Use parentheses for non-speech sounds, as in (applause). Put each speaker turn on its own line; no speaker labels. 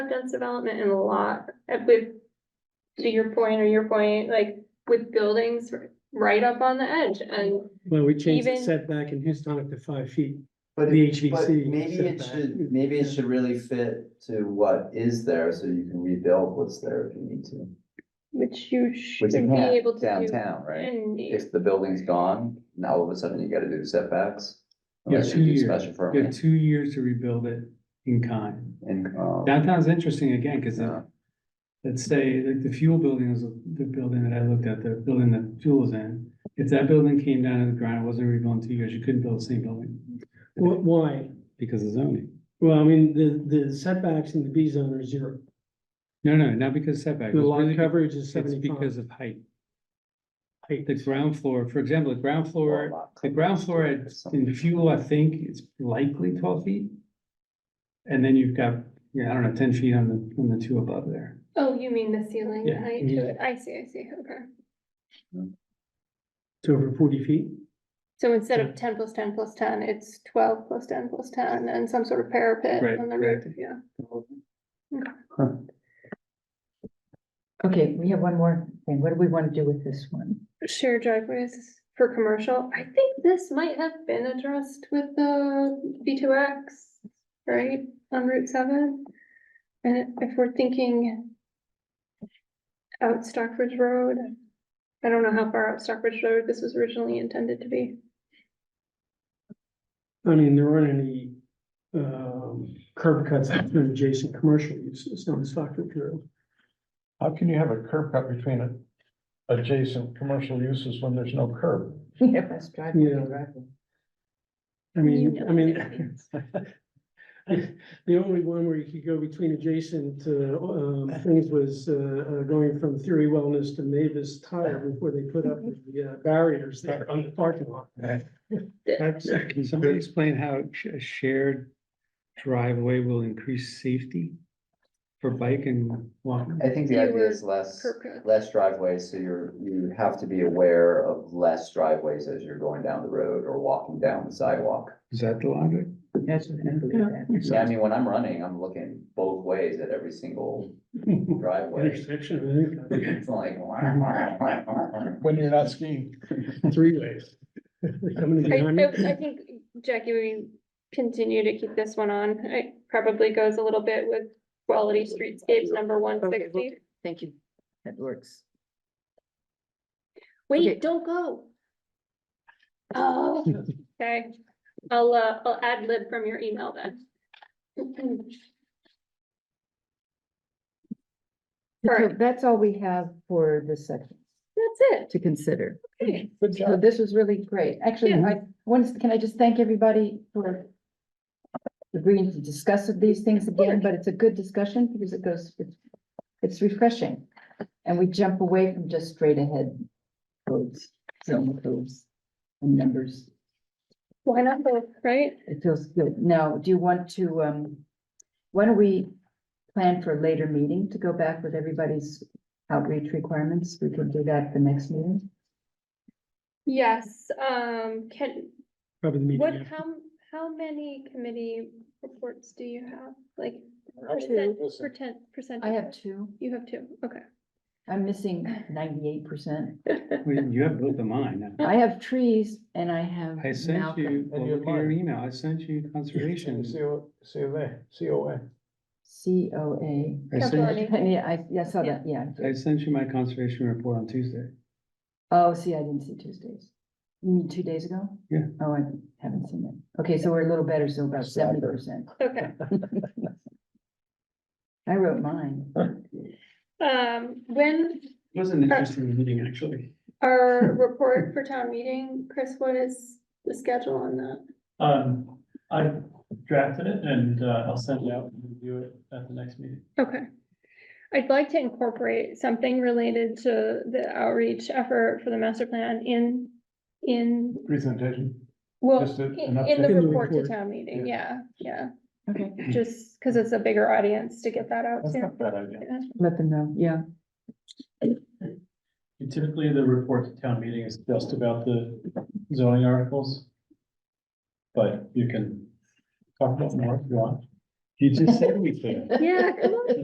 dense development in a lot uh, with. To your point or your point, like with buildings r- right up on the edge and
Well, we changed the
Even-
setback in Houstonic to five feet,
But
The
it- but
HVC
Maybe it
setback.
should, maybe it should really fit to what is there, so you can rebuild what's there if you need to.
which you
Which you
should be able
can't
to do.
downtown, right?
And
If the building's gone, now all of a sudden you gotta do setbacks.
Yeah,
unless you
two
do
years.
Special
You have
permit
two years to rebuild it in kind.
and, um,
Downtown's interesting again, because
uh,
let's say, like, the fuel building is the building that I looked at, the building that fuel is in. If that building came down to the ground, it wasn't rebuilt in two years, you couldn't build the same building
Wh- why?
because of zoning.
Well, I mean, the, the setbacks in the B zone are zero,
No, no, not because setback.
the
It's
lot
really-
coverage is
It's because
seventy-five.
of height.
Height.
The ground floor, for example, the ground
or
floor,
lot
the ground floor
coverage or
at,
something.
in fuel, I think, it's likely twelve feet. And then you've got, yeah, I don't know, ten feet on the, on the two above there.
Oh, you mean the ceiling
Yeah.
height to it? I see, I see, okay.
It's over forty feet,
So instead of ten plus ten plus ten, it's twelve plus ten plus ten and some sort of parapet
Right,
on the
right.
roof, yeah.
Okay, we have one more thing. What do we want to do with this one? (laughs)
Shared driveways for commercial, I think this might have been addressed with the B two X, right, on Route seven? And if we're thinking out Stockbridge Road, I don't know how far out Stockbridge Road this was originally intended to be.
I mean, there aren't any, um, curb cuts for adjacent commercial uses on Stockbridge Road.
How can you have a curb cut between a- adjacent commercial uses when there's no curb?
Yeah, let's drive.
Yeah. I mean,
You know
I mean,
what I mean.
the only one where you could go between adjacent, uh, um, things was, uh, uh, going from Theory Wellness to Mavis Tire before they
(laughs)
put up the uh, barriers there on the parking lot.
(laughs)
That's-
Can somebody explain how sh- a shared driveway will increase safety for bike and walking?
I think the
Fewer
idea is less,
curb cuts.
less driveways, so you're, you have to be aware of less driveways as you're going down the road or walking down the sidewalk.
Is that the logic?
That's what I believe that.
Yeah, I mean, when I'm running, I'm looking both ways at every single driveway.
Intersection, I think,
It's like. (laughs) Well,
When you're not skiing.
three ways. They're Coming
I,
behind me.
I I think, Jackie, we continue to keep this one on. It probably goes a little bit with quality streetscapes, number one
Okay,
sixty.
Thank you. That works. okay.
Wait, don't go. Oh, (laughs) okay. I'll, uh, I'll ad lib from your email (clears throat) then.
So
Alright.
that's all we have for this section
That's
to consider.
it.
Good
So this was really great. Actually,
Yeah.
I, once, can I just thank everybody for agreeing to discuss these things again, but it's a good discussion because it goes, it's, it's refreshing. And we jump away from just straight ahead codes, zone codes and numbers.
Why not both, right?
It feels good. Now, do you want to, um, why don't we plan for a later meeting to go back with everybody's outreach requirements? We can do that at the next meeting.
Yes, um, can,
Probably the
what,
meeting.
how, how many committee reports do you have? Like,
Two.
percent, percent, percent?
I have two.
You have two, okay.
I'm missing ninety-eight percent.
Well, You have both of mine.
I have trees and I have
I sent you,
Malcolm,
well, look at your email, I sent you conservation.
C O
(laughs)
A.
I sent,
Capillary.
Yeah, I, yeah, I saw that, yeah.
I sent you my conservation report on Tuesday.
Oh, see, I didn't see Tuesdays. You mean two days ago?
Yeah.
Oh, I haven't seen that. Okay, so we're a little better, so about
Slapper.
seventy percent.
Okay.
I wrote mine.
Oh.
Um, when
It was an interesting meeting, actually.
our report for town meeting, Chris, what is the schedule on that?
Um, I drafted it and uh, I'll send it out and review it at the next meeting.
Okay. I'd like to incorporate something related to the outreach effort for the master plan in, in,
Presentation.
well,
Just a- an
in in the
update.
report to town meeting, yeah, yeah.
Okay.
Just because it's a bigger audience to get that out
That's
to.
not a bad idea.
Yeah.
Let them know, yeah.
Typically, the report to town meeting is just about the zoning articles. But you can talk about more if you want.
You just said we could.
Yeah, come on.